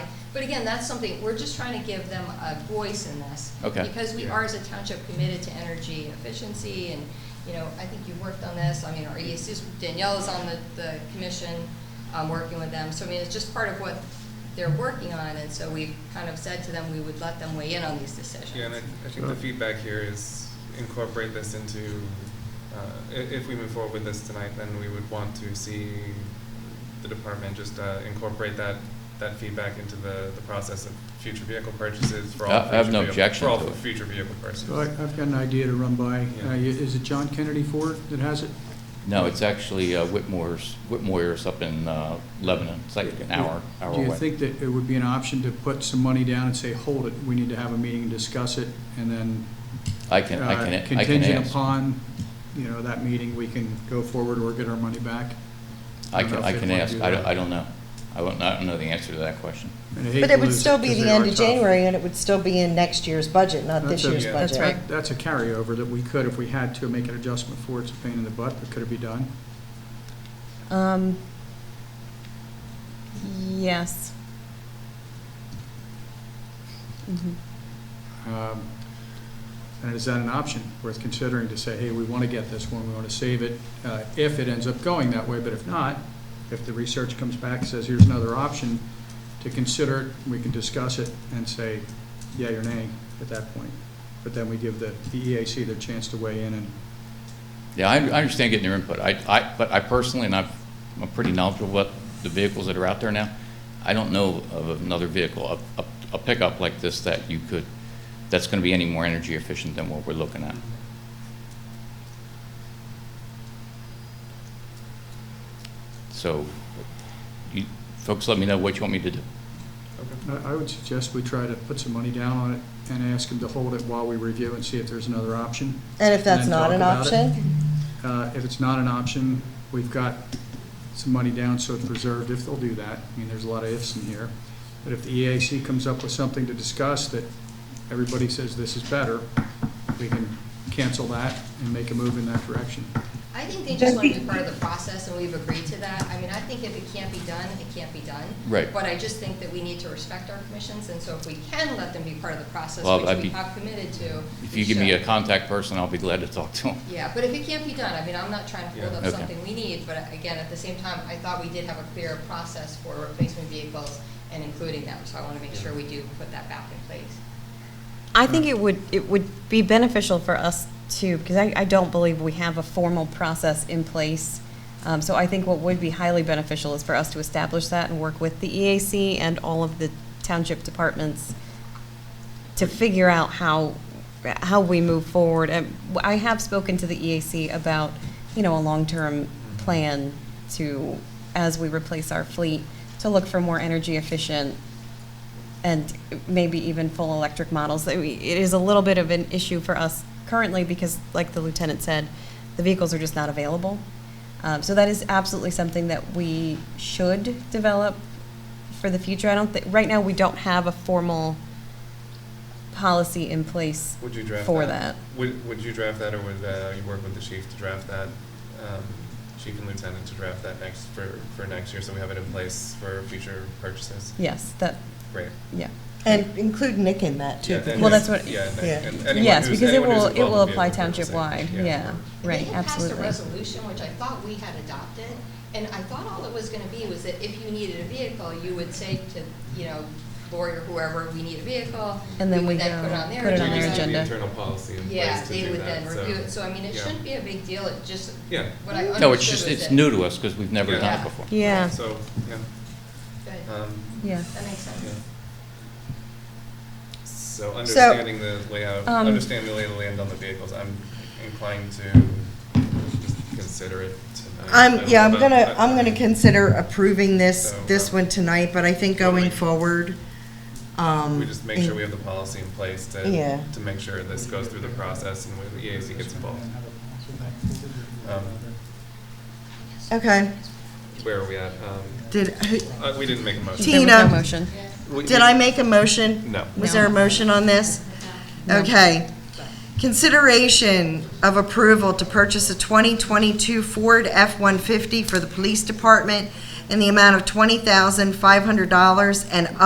But again, that's something, we're just trying to give them a voice in this. Okay. Because we Yeah. are as a township committed to energy efficiency and, you know, I think you worked on this. I mean, our ESC, Danielle is on the, the commission, um, working with them. So I mean, it's just part of what they're working on. And so we've kind of said to them, we would let them weigh in on these decisions. Yeah, and I, I think the feedback here is incorporate this into, uh, i- if we move forward with this tonight, then we would want to see the department just, uh, incorporate that, that feedback into the, the process of future vehicle purchases for all. I- I have future no vehicle- objection For to all it. future vehicle So I, purchases. I've got an idea to run by. Yeah. Uh, Is it John Kennedy Ford that has it? No, it's actually uh, Whitmore's, Whitmore's up in uh, Lebanon. It's like an hour, hour Do you away. think that it would be an option to put some money down and say, hold it, we need to have a meeting and discuss it, and then I can, I uh, can, I can ask. contingent upon, you know, that meeting, we can go forward or get our money back? I don't can, know I if they'd can wanna ask, do I don't, that. I don't know. I won't, I don't know the answer to that question. And I hate But to it would lose still be 'cause the they end are of tough. January, and it would still be in next year's budget, not this That's a- year's Yeah. budget. That's That- That's a carryover that we could, if we had to, make an adjustment for, it's a pain in the butt, but could it be done? Um, yes. Mhm. Um, And is that an option worth considering to say, hey, we want to get this one, we want to save it, uh, if it ends up going that way, but if not, if the research comes back and says, here's another option, to consider it, we can discuss it and say, yea or nay at that point. But then we give the the EAC their chance to weigh in and, Yeah, I, I understand getting your input. I, I, but I personally, and I've, I'm pretty knowledgeable about the vehicles that are out there now. I don't know of another vehicle, a, a, a pickup like this that you could, that's gonna be any more energy efficient than what we're looking at. So, you, folks, let me know what you want me to do. Okay. I- I would suggest we try to put some money down on it and ask them to hold it while we review and see if there's another option. And if that's then not talk an about it. option, Uh, If it's not an option, we've got some money down, so it's reserved if they'll do that. I mean, there's a lot of ifs in here. But if the EAC comes up with something to discuss that everybody says this is better, we can cancel that and make a move in that direction. I think they just want to be part of the process, and we've agreed to that. I mean, I think if it can't be done, it can't be done. Right. But I just think that we need to respect our commissions, and so if we can let them be part of the process, Well, which I'd we be- have committed to. If we you give me a should. contact person, I'll be glad to talk to them. Yeah, but if it can't be done, I mean, I'm not trying to hold Yeah. up Okay. something we need, but again, at the same time, I thought we did have a clear process for replacement vehicles and including them, so I want to make sure we do put that back in place. I think it would, it would be beneficial for us too, because I, I don't believe we have a formal process in place. Um, so I think what would be highly beneficial is for us to establish that and work with the EAC and all of the township departments to figure out how, how we move forward. And I have spoken to the EAC about, you know, a long-term plan to, as we replace our fleet, to look for more energy efficient and maybe even full electric models. I mean, It is a little bit of an issue for us currently because, like the lieutenant said, the vehicles are just not available. Um, so that is absolutely something that we should develop for the future. I don't think right now we don't have a formal policy in place Would you draft that? for that. Would, would you draft that, or would, uh, you work with the chief to draft that, um, chief and lieutenant to draft that next, for, for next year, so we have it in place for future purchases? Yes, that Great. yeah. and include Nick in that too. Yeah, then- because- Well, that's what- Yeah, and- Yeah. and anyone yes, who's- because it anyone who's will it involved will in apply vehicle purchasing, township wide. Yeah. right. They had absolutely. passed a resolution, which I thought we had adopted, and I thought all it was going to be was that if you needed a vehicle, you would say to, you know, Lori or whoever, we need a vehicle. And then would we then go put it on their put it There on their needs to be agenda. internal policy in Yeah, place to they do would that, then review it, so I mean, it yeah. shouldn't be a big deal, it just, Yeah. what I understood was No, it's just, that- it's new to us because we've never done Yeah. it before. Yeah. So, yeah, Good. um, yeah. That makes sense. yeah. So understanding the layout, Um, understanding the lay of the land on the vehicles, I'm inclined to just consider it tonight. I'm, yeah, I'm But- gonna, but- I'm gonna consider approving this, So, this um, one tonight, but I think going forward, um. We just make sure we have the policy in place to, Yeah. to make sure this goes through the process and when the EAC gets involved. Um, Okay, Where are we at? Um, did, uh, we didn't make a motion. There was no Tina. motion. We- did I make a motion? No. Was there a motion on this? Okay. Consideration of approval to purchase a 2022 Ford F-150 for the police department in the amount of $20,500 and